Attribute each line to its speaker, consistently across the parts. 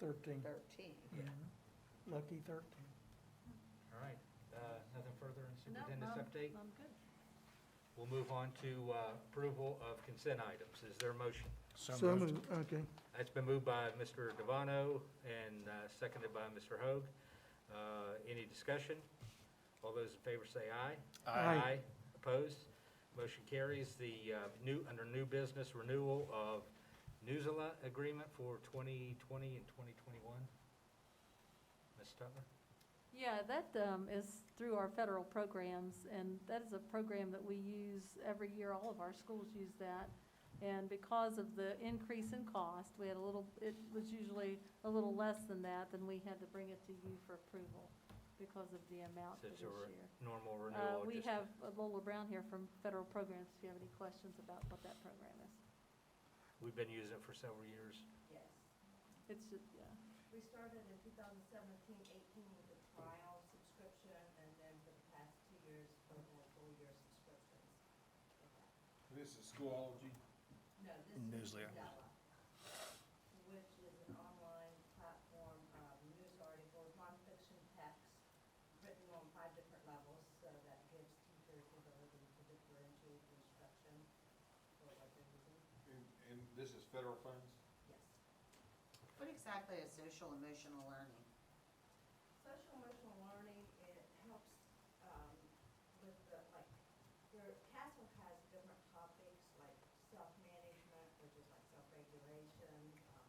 Speaker 1: Thirteen,
Speaker 2: thirteen.
Speaker 1: lucky thirteen.
Speaker 3: All right, uh, nothing further in
Speaker 4: No,
Speaker 3: superintendent's
Speaker 4: I'm-
Speaker 3: update?
Speaker 4: I'm good.
Speaker 3: We'll move on to uh, approval of consent items. Is there a motion?
Speaker 1: So moved, okay.
Speaker 3: That's been moved by Mr. Devano and uh, seconded by Mr. Hoag. Uh, Any discussion? All those in favor say aye.
Speaker 1: Aye.
Speaker 3: Opposed? Motion carries. The uh, new, under new business renewal of Newsela agreement for 2020 and 2021. Ms. Stutler?
Speaker 4: Yeah, that um, is through our federal programs, and that is a program that we use every year. All of our schools use that. And because of the increase in cost, we had a little, it was usually a little less than that, then we had to bring it to you for approval because of the amount for
Speaker 3: Since
Speaker 4: this
Speaker 3: it's a re-
Speaker 4: year.
Speaker 3: normal
Speaker 4: Uh,
Speaker 3: renewal.
Speaker 4: We
Speaker 3: just-
Speaker 4: have uh, Lola Brown here from Federal Programs, if you have any questions about what that program is.
Speaker 3: We've been using it for several years.
Speaker 5: Yes.
Speaker 4: It's, just- yeah.
Speaker 5: We started in 2017, 18 with a trial subscription, and then for the past two years, we're more full-year subscriptions.
Speaker 6: This is Schoology.
Speaker 5: No, this is
Speaker 6: Newsletter.
Speaker 5: Mandela, which is an online platform of news articles, nonfiction text, written on five different levels, so that gives teachers the ability to differentiate instruction for what they're using.
Speaker 6: And, and this is federal funds?
Speaker 5: Yes.
Speaker 7: What exactly is social emotional learning?
Speaker 5: Social emotional learning, it helps um, with the, like, your castle has different topics, like self-management, which is like self-regulation. um,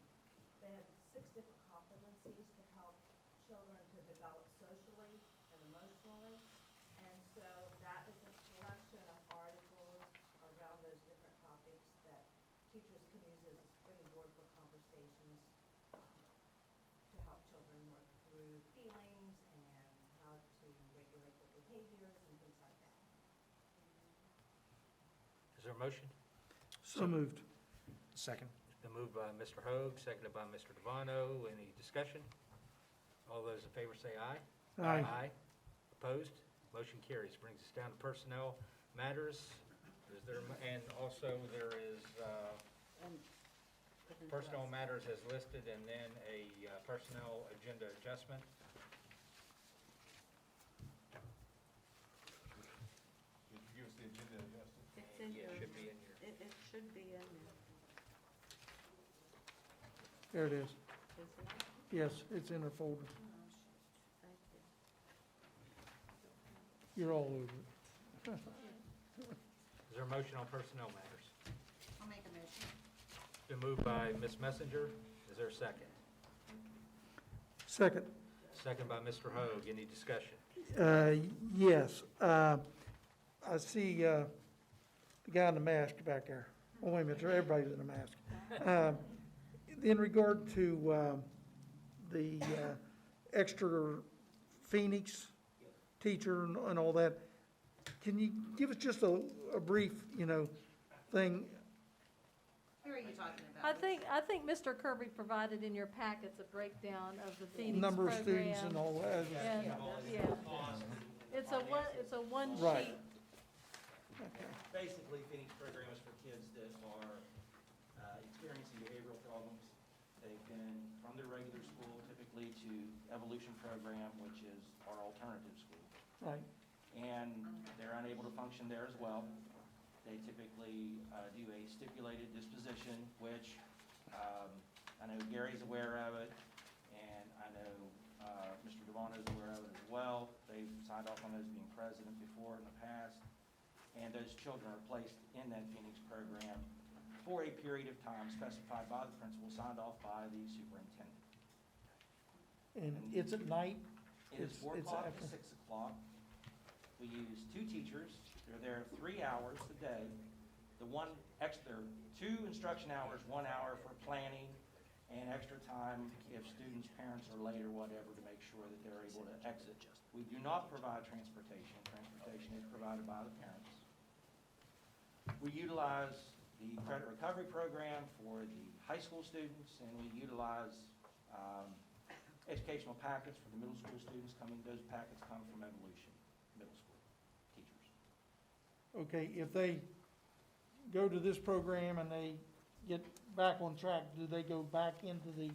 Speaker 5: They have six different competencies to help children to develop socially and emotionally. And so that is a selection of articles around those different topics that teachers can use as a springboard for conversations um, to help children work through feelings and how to regulate their behaviors and things like that.
Speaker 3: Is there a motion?
Speaker 1: So moved.
Speaker 8: Second.
Speaker 3: It's been moved by Mr. Hoag, seconded by Mr. Devano. Any discussion? All those in favor say aye.
Speaker 1: Aye.
Speaker 3: Opposed? Motion carries. Brings us down to personnel matters. Is there, and also there is uh, personnel matters as listed and then a uh, personnel agenda adjustment.
Speaker 6: Did you give us the agenda, Justin?
Speaker 2: It's in
Speaker 3: Yeah,
Speaker 2: your,
Speaker 3: it should
Speaker 2: it,
Speaker 3: be in here.
Speaker 2: it should be in there.
Speaker 1: There it is.
Speaker 2: Is it?
Speaker 1: Yes, it's in her folder.
Speaker 2: Thank you.
Speaker 1: You're all over it.
Speaker 3: Is there a motion on personnel matters?
Speaker 7: I'll make a motion.
Speaker 3: It's been moved by Ms. Messenger. Is there a second?
Speaker 1: Second,
Speaker 3: Second by Mr. Hoag. Any discussion?
Speaker 1: uh, yes, uh, I see, uh, the guy in the mask back there. Oh, wait a minute, everybody's in a mask. Uh, In regard to, um, the, uh, extra Phoenix teacher and, and all that, can you give us just a, a brief, you know, thing?
Speaker 7: Who are you talking about?
Speaker 4: I think, I think Mr. Kirby provided in your packets a breakdown of the Phoenix program.
Speaker 1: Number of students and all that?
Speaker 4: And, yeah. It's a one, it's a one
Speaker 1: Right.
Speaker 4: sheet.
Speaker 9: Basically, Phoenix program is for kids that are uh, experiencing behavioral problems. They've been from their regular school typically to Evolution Program, which is our alternative school.
Speaker 1: Right,
Speaker 9: And they're unable to function there as well. They typically uh, do a stipulated disposition, which um, I know Gary's aware of it, and I know uh, Mr. Devano's aware of it as well. They've signed off on those being president before in the past. And those children are placed in that Phoenix program for a period of time specified by the principal, signed off by the superintendent.
Speaker 1: and it's at night?
Speaker 9: It is
Speaker 1: It's-
Speaker 9: four
Speaker 1: it's
Speaker 9: o'clock
Speaker 1: after-
Speaker 9: to six o'clock. We use two teachers. They're there three hours a day. The one extra, two instruction hours, one hour for planning and extra time if students' parents are late or whatever to make sure that they're able to exit. We do not provide transportation. Transportation is provided by the parents. We utilize the credit recovery program for the high school students, and we utilize um, educational packets for the middle school students coming. Those packets come from Evolution Middle School teachers.
Speaker 1: Okay, if they go to this program and they get back on track, do they go back into the